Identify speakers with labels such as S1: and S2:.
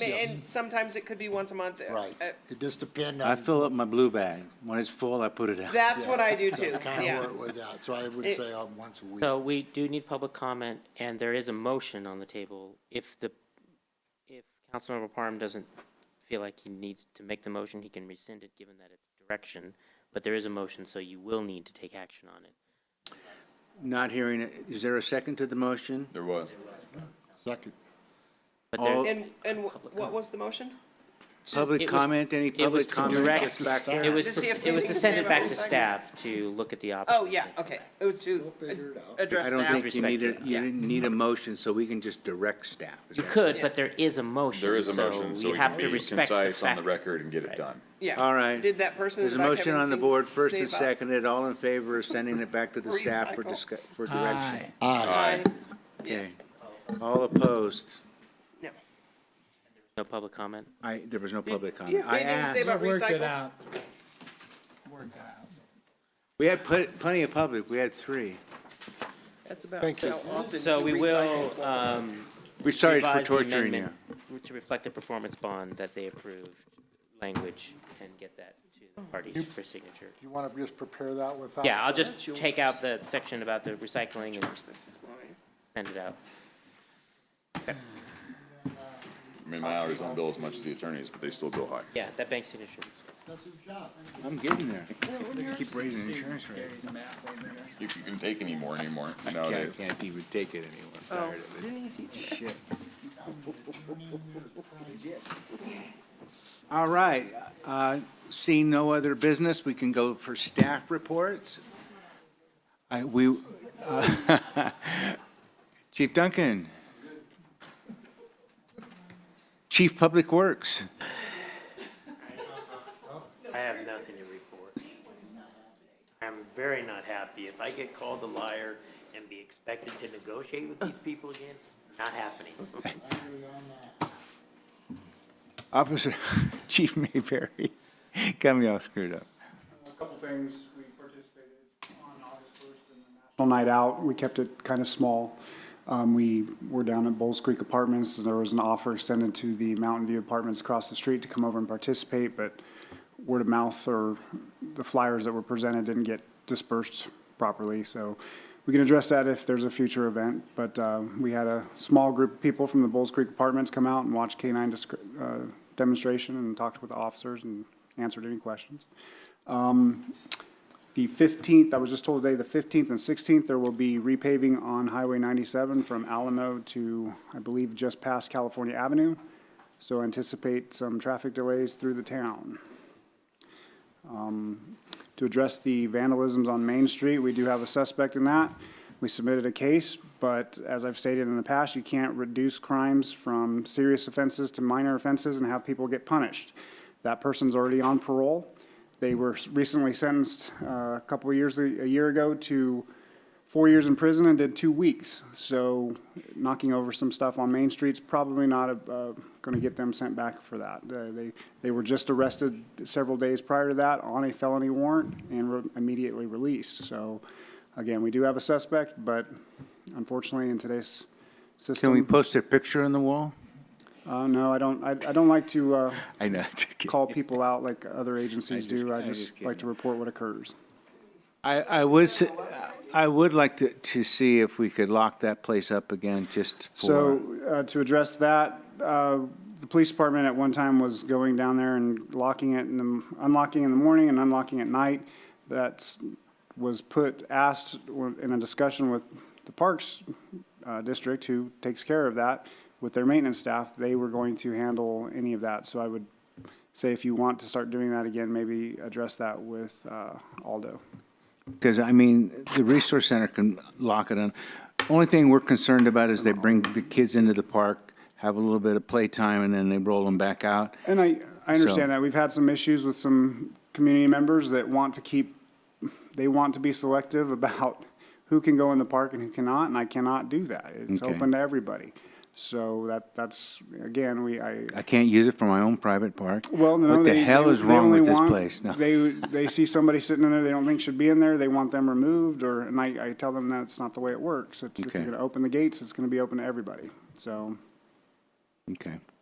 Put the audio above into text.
S1: Ma- And sometimes it could be once a month. uh,
S2: Right,
S1: uh,
S2: it just depend
S3: I
S2: on,
S3: fill up my blue bag. When it's full, I put it out.
S1: That's what I do too,
S2: that's kind of
S1: yeah.
S2: where it was at, so I would
S1: It-
S2: say uh, once a week.
S4: So we do need public comment, and there is a motion on the table. If the, if Councilmember Parham doesn't feel like he needs to make the motion, he can rescind it, given that it's direction. But there is a motion, so you will need to take action on it.
S3: Not hearing it. Is there a second to the motion?
S5: There was.
S2: Second,
S4: But there,
S1: And, and wh- what was the motion?
S3: Public
S4: it was-
S3: comment, any
S4: it
S3: public
S4: was to
S3: comment?
S4: direct,
S3: Back to
S4: it was,
S1: Does he
S4: to-
S1: have
S4: it was to
S1: anything to
S4: send
S1: say
S4: it
S1: about
S4: back
S1: the
S4: to
S1: second?
S4: staff to look at the options.
S1: Oh, yeah, okay. It was to
S2: figure it out.
S1: ad- address
S3: I don't
S1: staff.
S3: think you need a, you
S1: Yeah.
S3: didn't need a motion, so we can just direct staff. Is
S4: You
S3: that-
S4: could, but there is a motion,
S5: There is a motion, so
S4: you
S5: we
S4: have
S5: can
S4: to
S5: be
S4: respect the
S5: concise on the
S4: fact-
S5: record and get it
S4: Right.
S5: done.
S1: Yeah.
S3: All right.
S1: Did that person in
S3: There's
S1: the
S3: a
S1: back have
S3: motion on the
S1: anything
S3: board,
S1: to
S3: first
S1: say
S3: and
S1: about-
S3: seconded, all in favor of sending it back to the staff for
S1: Recycle.
S3: discuss, for direction.
S1: Aye.
S3: Okay.
S1: Yes.
S3: All opposed?
S1: No.
S4: No public comment?
S3: I, there was no public
S1: you
S3: comment.
S1: have
S3: I
S1: anything to say
S3: asked,
S1: about
S6: Work it
S1: recycle?
S6: out. Work it out.
S3: we had pl- plenty of public, we had three.
S1: That's about
S2: Thank you.
S1: how often.
S4: So we
S1: recycle
S4: will,
S1: is once a month.
S4: um,
S3: We're sorry for
S4: revise the
S3: torturing you.
S4: amendment To reflect the performance bond that they approved language and get that to the parties for signature.
S2: you want to just prepare that without?
S4: Yeah, I'll
S1: That's
S4: just
S1: yours.
S4: take out the section about the recycling and
S1: This is mine.
S4: send it out.
S5: I mean, my hours don't bill as much as the attorneys, but they still bill high.
S4: Yeah, that bank signature.
S2: That's his job.
S3: I'm getting there. Keep raising insurance rates.
S5: If you can take any more anymore
S3: I
S5: nowadays.
S3: can't even take it anymore.
S1: Oh,
S3: I'm tired of it.
S1: didn't he teach that?
S3: Shit. All right, uh, seeing no other business, we can go for staff reports. I, we, uh, Chief Duncan. Chief Public Works.
S7: I have nothing to report. I'm very not happy. If I get called a liar and be expected to negotiate with these people again, not happening.
S3: Officer, Chief Mayberry, got me all screwed up.
S8: A couple things, we participated on August 1st in the National Night Out, we kept it kind of small. Um, We were down at Bowles Creek Apartments, and there was an offer extended to the Mountain View Apartments across the street to come over and participate, but word of mouth or the flyers that were presented didn't get dispersed properly, so we can address that if there's a future event, but uh, we had a small group of people from the Bowles Creek Apartments come out and watch K-9 disc- uh, demonstration and talked with the officers and answered any questions. The 15th, I was just told today, the 15th and 16th, there will be repaving on Highway 97 from Alamo to, I believe, just past California Avenue. So anticipate some traffic delays through the town. Um, To address the vandalisms on Main Street, we do have a suspect in that. We submitted a case, but as I've stated in the past, you can't reduce crimes from serious offenses to minor offenses and have people get punished. That person's already on parole. They were recently sentenced uh, a couple of years, a year ago, to four years in prison and did two weeks. So knocking over some stuff on Main Street's probably not going to get them sent back for that. Uh, They, they were just arrested several days prior to that on a felony warrant and were immediately released. So again, we do have a suspect, but unfortunately, in today's
S3: Can we
S8: system,
S3: post a picture on the wall?
S8: uh, no, I don't, I I don't like to uh,
S3: I know, it's okay.
S8: call people out like other agencies
S3: just-
S8: do. I
S3: I just
S8: just like
S3: kidding.
S8: to report what occurs.
S3: I, I was, I would like to, to see if we could lock that place up again just
S8: So,
S3: for,
S8: uh, to address that, uh, the police department at one time was going down there and locking it in the, unlocking in the morning and unlocking at night. That's, was put, asked in a discussion with the Parks, uh, District, who takes care of that, with their maintenance staff, they were going to handle any of that. So I would say if you want to start doing that again, maybe address that with, uh, Aldo.
S3: because I mean, the resource center can lock it in. Only thing we're concerned about is they bring the kids into the park, have a little bit of playtime, and then they roll them back out.
S8: And I, I
S3: So-
S8: understand that. We've had some issues with some community members that want to keep, they want to be selective about who can go in the park and who cannot, and I cannot do that. It's
S3: Okay.
S8: open to everybody. So that, that's, again, we, I,
S3: I can't use it for my own private park.
S8: well, no,
S3: What the
S8: they-
S3: hell
S8: they-
S3: is
S8: they
S3: wrong
S8: only
S3: with this
S8: want-
S3: place? No.
S8: They, they see somebody sitting in there they don't think should be in there, they want them removed, or, and I, I tell them that's not the way it works. It's- If you're
S3: Okay.
S8: gonna open the gates, it's gonna be open to everybody, so.
S3: Okay.